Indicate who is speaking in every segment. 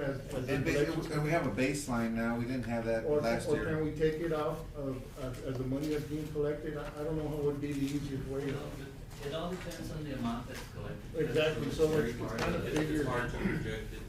Speaker 1: as, as a
Speaker 2: And
Speaker 1: collection.
Speaker 2: ba- and we have a baseline now, we didn't have that
Speaker 1: Or,
Speaker 2: last
Speaker 1: or can
Speaker 2: year.
Speaker 1: we take it out of, as, as the money that's being collected, I, I don't know what would be the easiest way.
Speaker 3: It all- It all depends on the amount that's collected.
Speaker 1: Exactly, so it's-
Speaker 3: That's very
Speaker 1: it's
Speaker 3: hard
Speaker 1: kind of
Speaker 3: to-
Speaker 4: It's it's hard to project
Speaker 3: to
Speaker 4: it.
Speaker 3: project.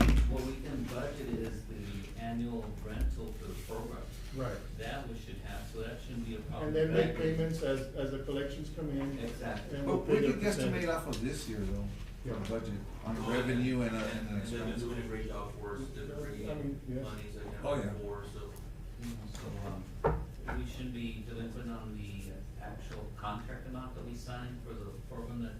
Speaker 3: I mean, what we can budget is the annual rental for the program.
Speaker 1: Right.
Speaker 3: That we should have, so that shouldn't be a problem.
Speaker 1: And then make
Speaker 3: That-
Speaker 1: payments as, as the collections come in.
Speaker 3: Exactly.
Speaker 1: and we'll
Speaker 2: But we
Speaker 1: pay the
Speaker 2: could
Speaker 1: percentage.
Speaker 2: guesstimate off of this year though, for the
Speaker 1: Yeah.
Speaker 2: budget, on the revenue and, uh, and,
Speaker 4: Oh, And they've been
Speaker 2: the-
Speaker 4: doing a great job for us, they're bringing
Speaker 1: I mean, yes.
Speaker 4: in monies like
Speaker 2: Oh,
Speaker 4: never
Speaker 2: yeah.
Speaker 4: before, so.
Speaker 3: you know, So, um, we should be delinquent on the actual contract amount that we signed for the program that,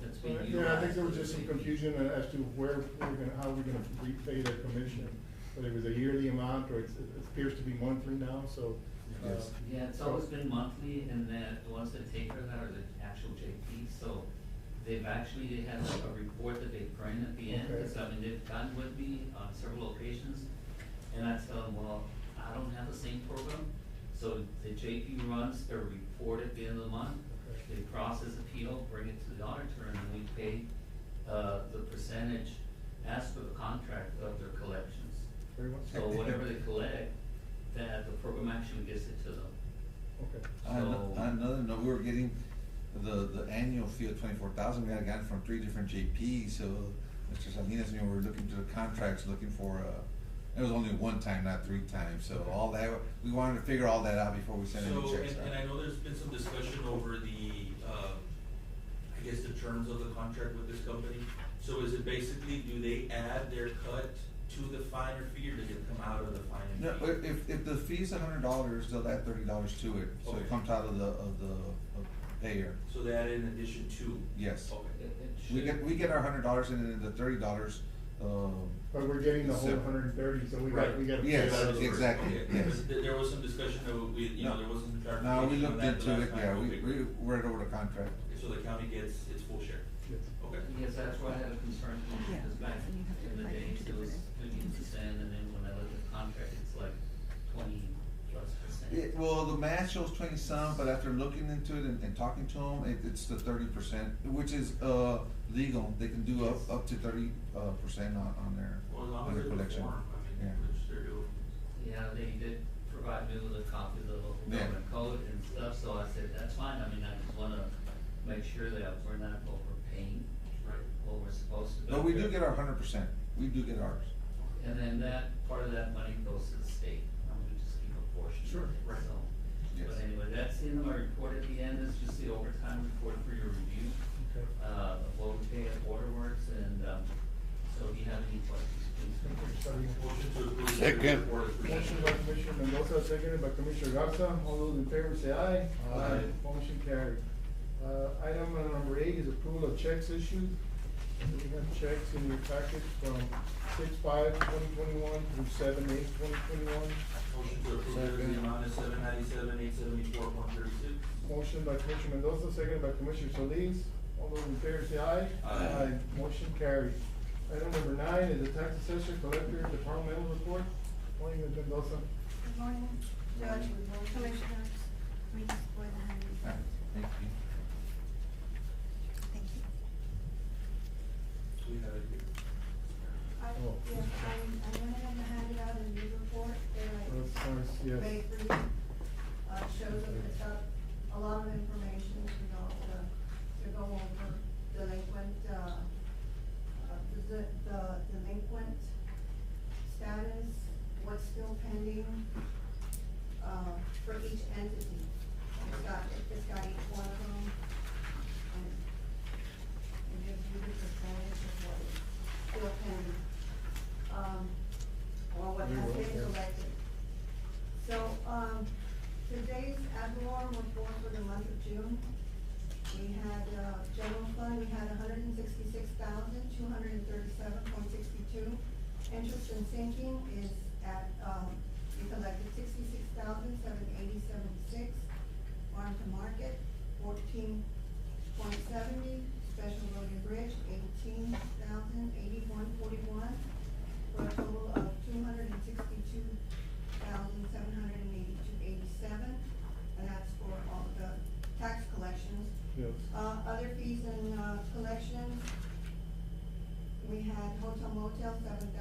Speaker 3: that's being
Speaker 1: Right,
Speaker 3: utilized.
Speaker 1: Yeah, I think there was just some
Speaker 3: It'll be-
Speaker 1: confusion uh, as to where we're gonna, how we're gonna repay the commission. Whether it was a yearly amount or it's- it appears to be monthly now, so. uh,
Speaker 2: Yes.
Speaker 3: Yeah, it's always been monthly, and then the ones that take her that are the actual JP, so they've actually, they had like a report that they print at the end,
Speaker 1: Okay.
Speaker 3: because I mean, they've gotten with me on several occasions, and I tell them, well, I don't have the same program, so the JP runs their report at the end of the month,
Speaker 1: Okay.
Speaker 3: they process appeal, bring it to the auditor, and then we pay, uh, the percentage as per the contract of their collections.
Speaker 1: Very much.
Speaker 3: So whatever they collect, that the program actually gets it to them.
Speaker 1: Okay.
Speaker 2: On
Speaker 3: So-
Speaker 2: another note, we were getting the, the annual fee of twenty-four thousand, we had gotten from three different JPs, so Mr. Salinas, you know, we were looking to the contracts, looking for, uh, it was only one time, not three times, so all that, we wanted to figure all that out before we sent any
Speaker 4: So,
Speaker 2: checks out.
Speaker 4: and, and I know there's been some discussion over the, uh, I guess the terms of the contract with this company. So is it basically, do they add their cut to the finer fee or does it come out of the
Speaker 2: No,
Speaker 4: finer fee?
Speaker 2: i- if, if the fee's a hundred dollars, they'll add thirty dollars to it, so it
Speaker 4: Okay.
Speaker 2: comes out of the, of the, of payer,
Speaker 4: So they add in addition to?
Speaker 2: uh, yes.
Speaker 3: It,
Speaker 4: Okay.
Speaker 3: it
Speaker 2: We
Speaker 3: should.
Speaker 2: get, we get our hundred dollars and then the thirty dollars, um,
Speaker 1: But we're getting the whole
Speaker 2: So-
Speaker 1: hundred and thirty, so we got,
Speaker 4: Right.
Speaker 1: we gotta. pay
Speaker 2: Yes,
Speaker 1: that out of the-
Speaker 2: exactly,
Speaker 4: Okay,
Speaker 2: yes.
Speaker 4: because there- there was some discussion of, we, you know, there wasn't clarification
Speaker 2: no, we
Speaker 4: on
Speaker 2: looked
Speaker 4: that the
Speaker 2: into
Speaker 4: last
Speaker 2: it,
Speaker 4: time.
Speaker 2: yeah, we,
Speaker 4: Okay.
Speaker 2: we read over the contract.
Speaker 4: Okay, So the county gets its full share?
Speaker 1: Yes.
Speaker 4: Okay.
Speaker 3: Yes, that's why I had a concern,
Speaker 5: Yeah,
Speaker 3: because back
Speaker 5: and you have to
Speaker 3: in the
Speaker 5: divide
Speaker 3: day,
Speaker 5: into
Speaker 3: it was
Speaker 5: different
Speaker 3: fifteen percent, and then when I look at the contract, it's like twenty plus percent.
Speaker 2: It, well, the math shows twenty some, but after looking into it and, and talking to them, it, it's the thirty percent, which is, uh, legal, they can do up, up to thirty, uh, percent on, on their,
Speaker 4: Well, as
Speaker 2: on
Speaker 4: long as
Speaker 2: their
Speaker 4: it's
Speaker 2: collection.
Speaker 4: form, I mean,
Speaker 2: Yeah.
Speaker 4: which they're doing.
Speaker 3: Yeah, they did provide me with a copy of the local
Speaker 2: Yeah.
Speaker 3: government code and stuff, so I said, that's fine, I mean, I just wanna make sure that we're not overpaying
Speaker 4: Right.
Speaker 3: what we're supposed to.
Speaker 2: But we do get our hundred percent, we do get ours.
Speaker 3: And then that, part of that money goes to the state, I'm gonna just keep a portion
Speaker 1: Sure,
Speaker 3: of it,
Speaker 4: right.
Speaker 3: so.
Speaker 2: Yes.
Speaker 3: But anyway, that's the end of my report at the end, it's just the overtime report for your review,
Speaker 1: Okay.
Speaker 3: uh, of what we pay at Waterworks, and, um, so if you have any questions, please.
Speaker 1: Okay, so we-
Speaker 4: Motion to approve. the
Speaker 6: Second.
Speaker 4: report is presented.
Speaker 1: Motion by Commissioner Mendoza, seconded by Commissioner Garza. All those in favor say aye.
Speaker 4: Aye.
Speaker 1: Motion carried. Uh, item number eight is approval of checks issued. We have checks in your package from six five twenty twenty-one through seven eight twenty twenty-one.
Speaker 4: Motion to approve in the amount of seven ninety-seven, eight seventy-four, one thirty-six.
Speaker 1: Motion by Commissioner Mendoza, seconded by Commissioner Solis. All those in favor say aye.
Speaker 4: Aye.
Speaker 1: Motion carried. Item number nine is the tax assessor collector departmental report. Morning, Ms. Mendoza.
Speaker 5: Good morning, Judge, Commissioners, we just go ahead
Speaker 2: All right,
Speaker 5: and,
Speaker 2: Thank you.
Speaker 5: thank you.
Speaker 4: We have it here.
Speaker 5: I,
Speaker 1: Oh.
Speaker 5: yes, I'm, I'm gonna have to hand it out in the
Speaker 1: Oh,
Speaker 5: report, they're
Speaker 1: sorry,
Speaker 5: like,
Speaker 1: yes.
Speaker 5: made for you. Uh, shows up, it's up, a lot of information to go, uh, to go over delinquent, uh, uh, the, the delinquent status, what's still pending, uh, for each entity. It's got, it's got each one of them. And it gives you the percentage of what is still pending, um, or what has been collected. So, um, today's ad valorem report for the month of June, we had, uh, general fund, we had hundred and sixty-six thousand, two hundred and thirty-seven point sixty-two. Interest and sinking is at, um, we collected sixty-six thousand, seven eighty-seven six. Farm to market, fourteen point seventy. Special road and bridge, eighteen thousand, eighty-one forty-one. Uh,